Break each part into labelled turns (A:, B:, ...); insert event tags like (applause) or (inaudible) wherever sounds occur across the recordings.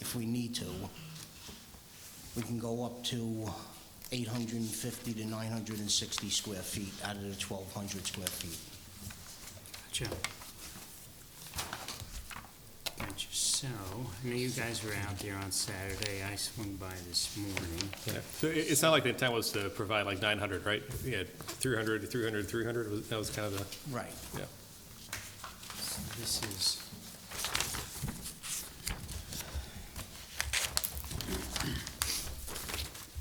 A: if we need to, we can go up to 850 to 960 square feet out of the 1,200 square feet.
B: Gotcha. Gotcha. So, I know you guys were out there on Saturday. I swung by this morning.
C: Yeah. So it, it's not like the intent was to provide like nine hundred, right? Yeah, 300, 300, 300. was, that was kind of the,
A: Right.
C: yeah.
B: So This is... (clears throat)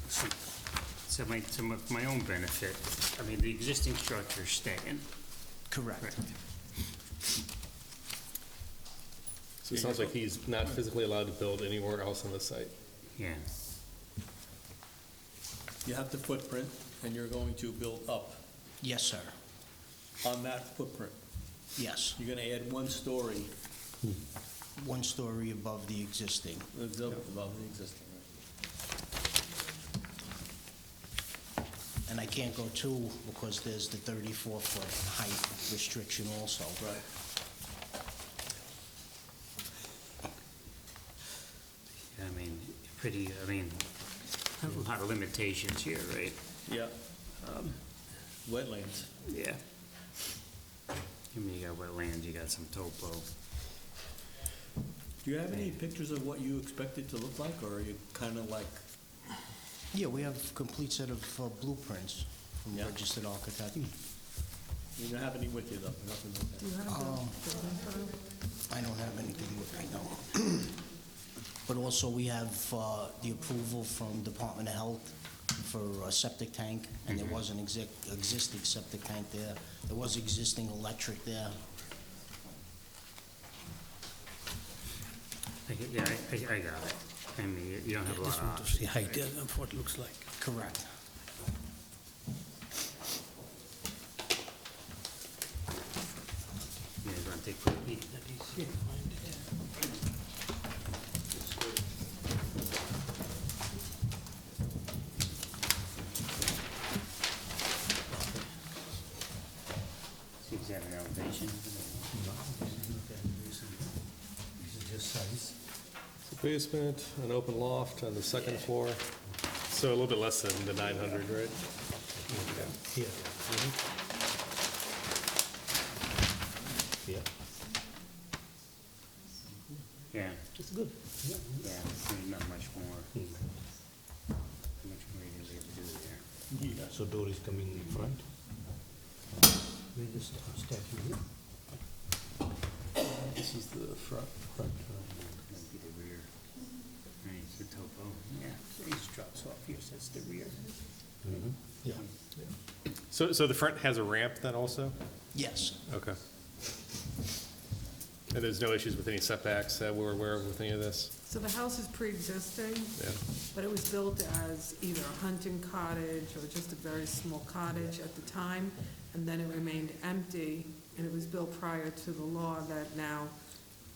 B: So my, to my- my own benefit, I mean, the existing structure's staying.
A: Correct.
C: So it sounds like he's not physically allowed to build anywhere else on the site.
B: Yeah.
D: You have the footprint, and you're going to build up
A: Yes, sir.
D: on that footprint.
A: Yes.
D: You're gonna add one story
A: One story above the existing.
D: above the existing.
A: And I can't go two because there's the 34-foot height restriction also.
D: Right.
B: I mean, pretty, I mean, a lot of limitations here, right?
D: Yeah. Um, Wetlands.
B: Yeah. I mean, you got wetlands, you got some topo.
D: Do you have any pictures of what you expect it to look like, or are you kinda like,
A: Yeah, we have a complete set of uh, blueprints from
D: Yeah.
A: registered architect.
D: you don't have any with you though? Nothing like that.
A: Um, I don't have anything with me, no. (clears throat) But also, we have uh, the approval from Department of Health for a septic tank, and there was an exi- existing septic tank there. There was existing electric there.
B: I get- Yeah, I, I- I got it. I mean, you- you don't have a lot
E: Just
B: of
E: want to see
B: options.
E: height,
B: right?
E: yeah, and what it looks like.
A: Correct.
B: Yeah, you want to take for a peek? See if you have an elevation.
C: So Basement, an open loft on the second floor. So a little bit less than the nine hundred, right?
E: Here. Yeah.
B: Yeah,
E: It's good.
B: yeah, I mean, not much more, much more you're gonna be able to do there.
E: Yeah, so door is coming in front. We just step here.
C: This is the front.
E: Front.
B: That'd be the rear. Right, the topo, yeah, so he just drops off here, so that's the rear.
E: Yeah.
C: So, so the front has a ramp then also?
A: Yes,
C: Okay. And there's no issues with any setbacks that we're aware of with any of this?
F: So the house is pre-existing,
C: Yeah.
F: but it was built as either a hunting cottage or just a very small cottage at the time, and then it remained empty, and it was built prior to the law that now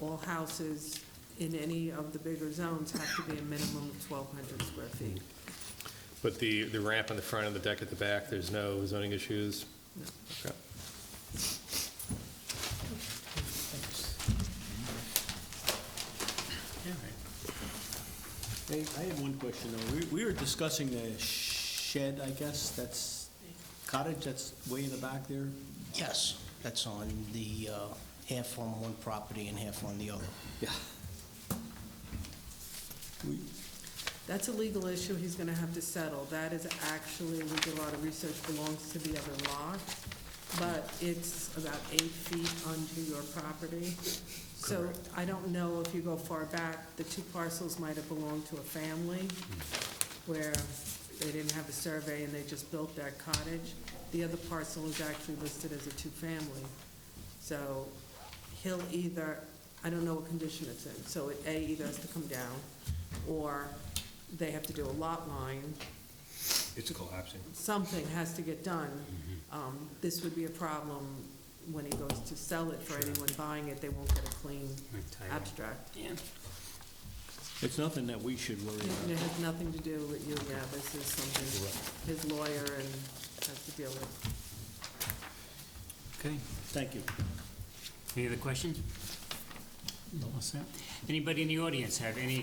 F: all houses in any of the bigger zones have to be a minimum of twelve hundred square feet.
C: But the, the ramp on the front and the deck at the back, there's no zoning issues?
F: No.
C: Okay.
B: Yeah, right.
D: Hey, I have one question though. We, we were discussing the shed, I guess, that's cottage, that's way in the back there.
A: yes, that's on the, uh, half on one property and half on the other.
D: Yeah. We,
F: That's a legal issue he's gonna have to settle. That is actually, we did a lot of research, belongs to the other lot, but it's about eight feet onto your property. So I don't know if you go far back, the two parcels might have belonged to a family where they didn't have a survey and they just built that cottage. The other parcel is actually listed as a two-family. So he'll either, I don't know what condition it's in, so it A, either has to come down, or they have to do a lot line,
G: It's collapsing. Mm-hmm.
F: something has to get done. Um, This would be a problem when he goes to sell it for anyone buying it, they won't get a clean
B: Like title.
F: abstract.
B: Yeah.
D: it's nothing that we should worry about.
F: And It has nothing to do with you, yeah, this is something his lawyer and has to deal with.
B: Okay,
D: Thank you.
B: any other questions? No. Anybody in the audience have any